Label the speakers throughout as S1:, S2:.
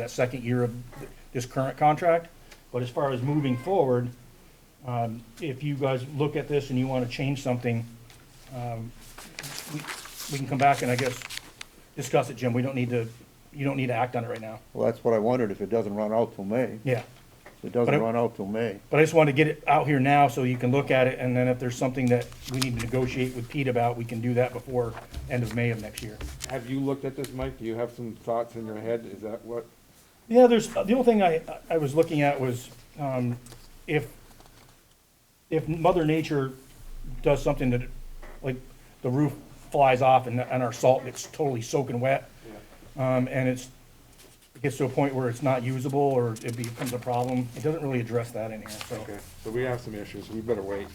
S1: that second year of this current contract. But as far as moving forward, um, if you guys look at this and you want to change something, um, we, we can come back and I guess discuss it, Jim. We don't need to, you don't need to act on it right now.
S2: Well, that's what I wondered, if it doesn't run out till May.
S1: Yeah.
S2: If It
S1: But it-
S2: doesn't run out till May.
S1: But I just wanted to get it out here now so you can look at it, and then if there's something that we need to negotiate with Pete about, we can do that before end of May of next year.
S3: Have you looked at this, Mike? Do you have some thoughts in your head? Is that what?
S1: Yeah, there's, uh, the only thing I, I was looking at was, um, if, if Mother Nature does something that, like, the roof flies off and, and our salt gets totally soaking wet, um, and it's, it gets to a point where it's not usable or it becomes a problem, it doesn't really address that in here, so.
S3: Okay, so we have some issues. We better wait.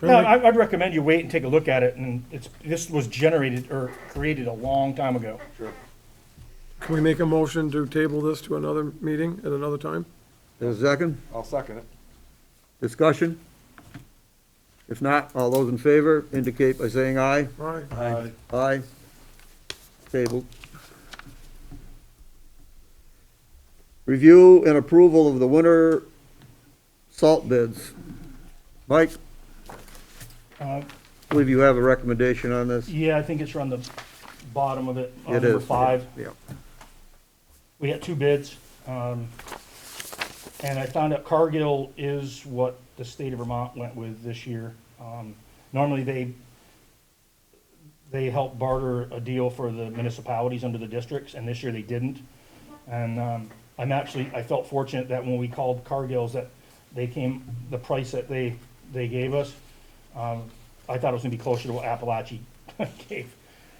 S1: No, I, I'd recommend you wait and take a look at it, and it's, this was generated or created a long time ago.
S3: Sure.
S4: Can we make a motion to table this to another meeting at another time?
S2: There's a second,
S3: I'll second it.
S2: discussion? If not, all those in favor indicate by saying aye.
S4: Aye.
S2: Aye. Tabled. Review and approval of the winter salt bids. Mike,
S1: Uh,
S2: I believe you have a recommendation on this?
S1: Yeah, I think it's around the bottom of it, on
S2: It
S1: number
S2: is.
S1: five.
S2: Yeah.
S1: We got two bids, um, and I found out Cargill is what the state of Vermont went with this year. Um, normally they, they help barter a deal for the municipalities under the districts, and this year they didn't. And, um, I'm actually, I felt fortunate that when we called Cargill's that they came, the price that they, they gave us, um, I thought it was gonna be closer to what Appalachia gave.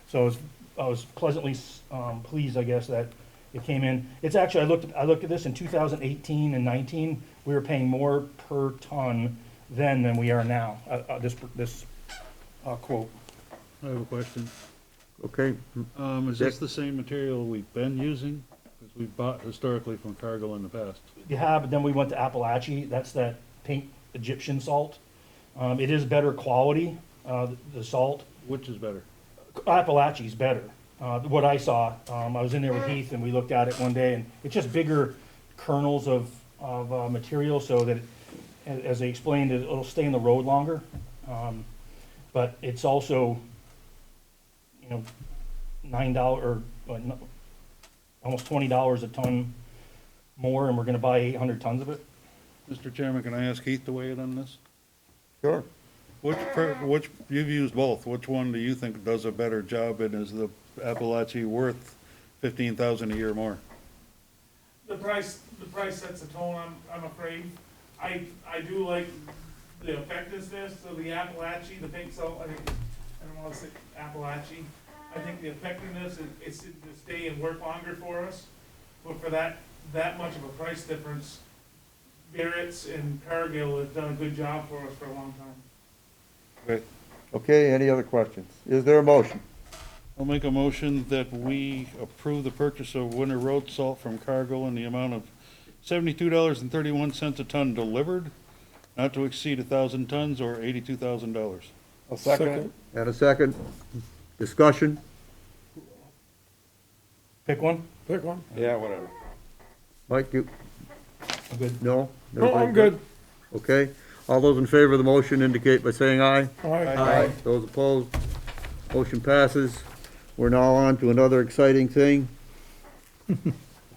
S1: So I was, I was pleasantly, um, pleased, I guess, that it came in. It's actually, I looked, I looked at this in two thousand eighteen and nineteen, we were paying more per ton then than we are now, uh, uh, this, this, uh, quote.
S5: I have a question.
S2: Okay,
S5: Um, is this
S2: Dick?
S5: the same material we've been using? Because we've bought historically from Cargill in the past.
S1: Yeah, but then we went to Appalachia, that's that pink Egyptian salt. Um, it is better quality, uh, the- the salt.
S5: Which is better?
S1: Appalachia's better. Uh, what I saw, um, I was in there with Heath and we looked at it one day and it's just bigger kernels of, of, uh, material so that, it- a- as they explained, it- it'll stay in the road longer. Um, but it's also, you know, nine dollar, or, uh, no- almost twenty dollars a ton more and we're gonna buy eight hundred tons of it.
S5: Mr. Chairman, can I ask Heath to weigh in on this?
S2: sure.
S5: Which, per- which, you've used both. Which one do you think does a better job and is the Appalachia worth fifteen thousand a year more?
S6: The price, the price sets the tone, I'm, I'm afraid. I, I do like the effectiveness of the Appalachian, the pink salt, I think, I don't wanna say Appalachian. I think the effectiveness, it- it's, to stay and work longer for us, but for that, that much of a price difference, Barrett's and Cargill have done a good job for us for a long time.
S5: Okay.
S2: Okay, any other questions? Is there a motion?
S5: I'll make a motion that we approve the purchase of winter road salt from Cargill in the amount of seventy-two dollars and thirty-one cents a ton delivered, not to exceed a thousand tons or eighty-two thousand dollars.
S3: I'll second it.
S2: And a second, discussion?
S1: Pick one?
S4: Pick one.
S3: Yeah, whatever.
S2: Mike, you,
S1: I'm good.
S2: no?
S4: No, Oh, I'm good.
S2: Okay, all those in favor of the motion indicate by saying aye.
S4: Aye.
S2: Aye. Those opposed, motion passes. We're now on to another exciting thing.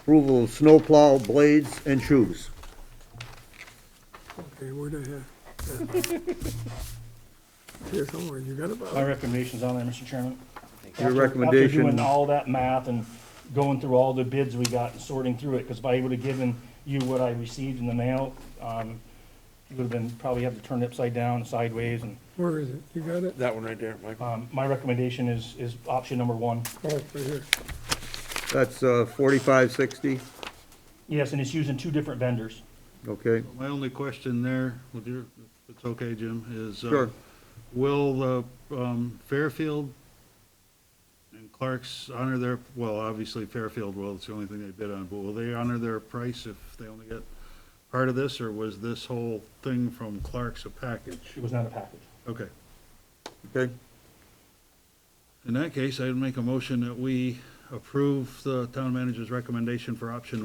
S2: Approval of snowplow blades and shoes.
S4: Okay, where the heck? Here somewhere, you got it,
S1: My
S4: Bob?
S1: recommendation's on there, Mr. Chairman.
S2: Your
S1: After-
S2: recommendation-
S1: After doing all that math and going through all the bids we got and sorting through it, because if I would have given you what I received in the mail, um, you would have been, probably have to turn it upside down, sideways, and,
S4: Where is it? You got it?
S3: That one right there, Mike.
S1: um, my recommendation is, is option number one.
S4: Oh, right here.
S2: That's uh, forty-five sixty,
S1: Yes, and it's using two different vendors.
S2: okay?
S5: My only question there, with your, if it's okay, Jim, is, uh,
S2: Sure.
S5: will the um, Fairfield and Clark's honor their, well, obviously Fairfield will, it's the only thing they bid on, but will they honor their price if they only get part of this, or was this whole thing from Clark's a package?
S1: It was not a package.
S5: Okay.
S2: Okay,
S5: In that case, I'd make a motion that we approve the town manager's recommendation for option